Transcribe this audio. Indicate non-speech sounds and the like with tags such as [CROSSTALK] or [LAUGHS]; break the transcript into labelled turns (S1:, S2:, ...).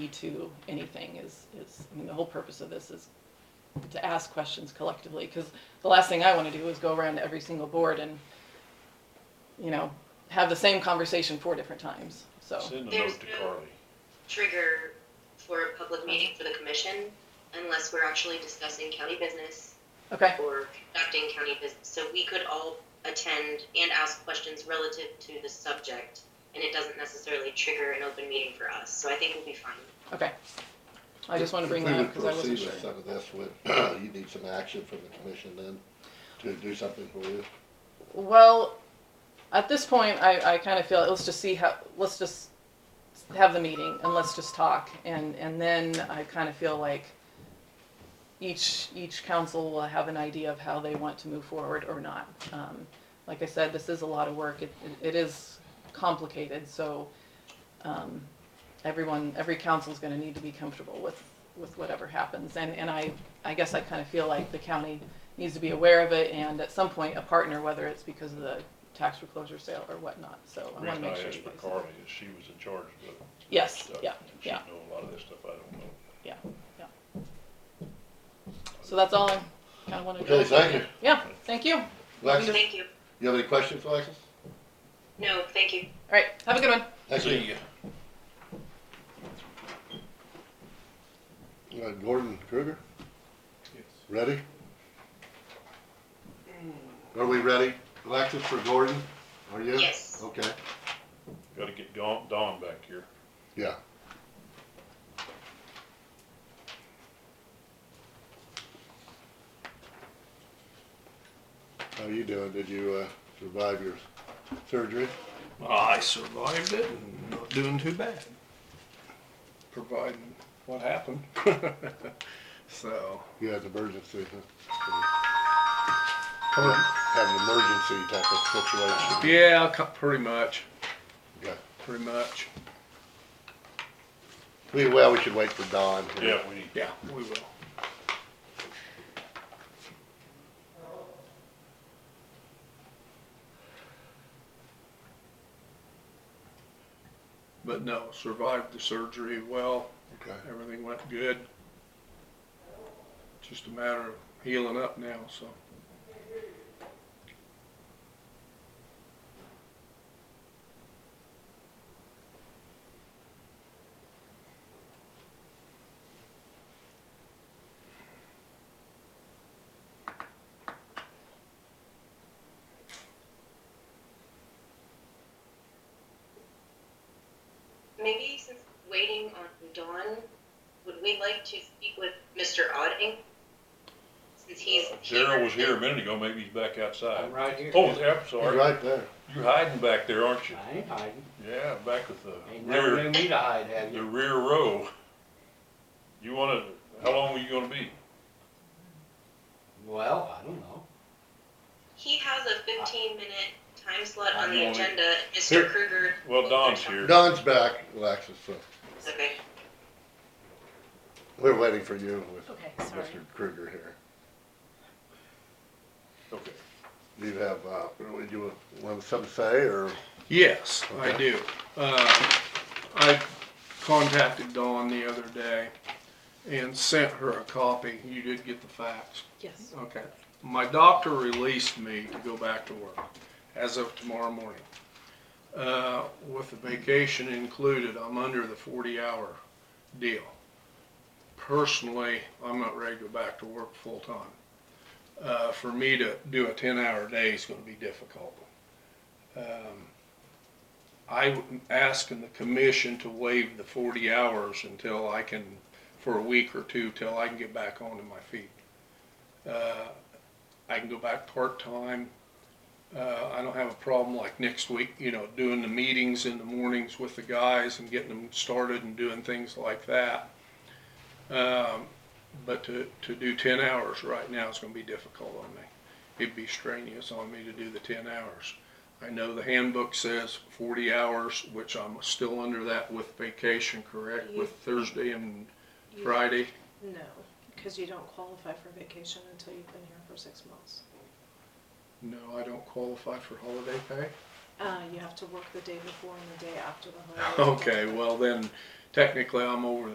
S1: to anything is, is, I mean, the whole purpose of this is to ask questions collectively, because the last thing I want to do is go around to every single board and, you know, have the same conversation four different times, so.
S2: Send a
S3: There's
S2: note to
S3: no-
S2: Carly.
S3: trigger for a public meeting for the commission unless we're actually discussing county business
S1: Okay,
S3: or conducting county business. So we could all attend and ask questions relative to the subject, and it doesn't necessarily trigger an open meeting for us. So I think we'll be fine.
S1: okay. I just want to bring
S4: If we
S1: that up because
S4: would
S1: I wasn't
S4: proceed
S1: sure.
S4: with Some of this would, [CLEARS THROAT] you need some action from the commission then to do something for you.
S1: Well, at this point, I, I kind of feel, let's just see how, let's just have the meeting and let's just talk. And, and then I kind of feel like each, each council will have an idea of how they want to move forward or not. Um, Like I said, this is a lot of work. It, it is complicated, so, um, everyone, every council's gonna need to be comfortable with, with whatever happens. And, and I, I guess I kind of feel like the county needs to be aware of it and at some point a partner, whether it's because of the tax foreclosure sale or whatnot, so I
S2: The
S1: wanna
S2: reason I
S1: make sure
S2: asked
S1: you
S2: for
S1: guys.
S2: Carly is she was in charge of the
S1: Yes,
S2: stuff.
S1: yeah,
S2: and
S1: yeah,
S2: She know a lot of this stuff I don't know.
S1: yeah, yeah. So that's all I kinda wanted to.
S4: Okay, thank you.
S1: Yeah, thank you. All
S4: Alexis,
S3: Thank you.
S4: you have any questions, Alexis?
S3: No, thank you.
S1: right, have a good one.
S4: Thank
S2: See
S4: you.
S2: ya.
S4: Uh, Gordon Kruger, ready? Are we ready? Alexis for Gordon, are you?
S3: Yes.
S4: Okay,
S2: Gotta get Don, Don back here.
S4: yeah. How you doing? Did you, uh, survive your surgery?
S5: I survived it and not doing too bad, providing what happened. [LAUGHS] so,
S4: You had an emergency, huh? Had an emergency type of situation.
S5: yeah, cu- pretty much,
S4: Okay.
S5: pretty much.
S4: We, well, we should wait for Don. here.
S2: Yeah, we need,
S5: Yeah, we will. But no, survived the surgery well.
S4: Okay.
S5: Everything went good. Just a matter of healing up now, so.
S3: Maybe since waiting on Dawn, would we like to speak with Mr. Odding? Since he's here.
S2: Daryl was here a minute ago, maybe he's back outside.
S6: I'm right here.
S2: Oh, yeah, I'm
S4: He's
S2: sorry.
S4: right there.
S2: You're hiding back there, aren't you?
S6: I ain't hiding.
S2: Yeah, back at the
S6: Ain't never
S2: rear,
S6: knew me to hide, have
S2: the
S6: you?
S2: rear row. You wanna, how long were you gonna be?
S6: Well, I don't know.
S3: He has a fifteen minute time slot on
S2: I'm
S3: the
S2: only-
S3: agenda,
S4: Here.
S3: Mr. Kruger.
S2: Well, Don's here.
S4: Don's back, Alexis, so
S3: Okay,
S4: we're waiting for you with
S1: Okay,
S4: Mr. Kruger here.
S2: Okay.
S4: Do you have, uh, would you want something to say, or,
S5: Yes, I
S4: Okay.
S5: do. Uh, I contacted Dawn the other day and sent her a copy. You did get the facts.
S1: Yes.
S5: Okay. My doctor released me to go back to work as of tomorrow morning. Uh, with the vacation included, I'm under the forty hour deal. Personally, I'm not ready to go back to work full time. Uh, for me to do a ten hour day is gonna be difficult. Um, I'm asking the commission to waive the forty hours until I can, for a week or two, till I can get back onto my feet. Uh, I can go back part-time. Uh, I don't have a problem like next week, you know, doing the meetings in the mornings with the guys and getting them started and doing things like that. Um, but to, to do ten hours right now is gonna be difficult on me. It'd be strenuous on me to do the ten hours. I know the handbook says forty hours, which I'm still under that with vacation, correct,
S7: You-
S5: with Thursday and
S7: You-
S5: Friday?
S7: No, because you don't qualify for vacation until you've been here for six months.
S5: No, I don't qualify for holiday pay.
S7: Uh, you have to work the day before and the day after the holiday.
S5: Okay, well then, technically I'm over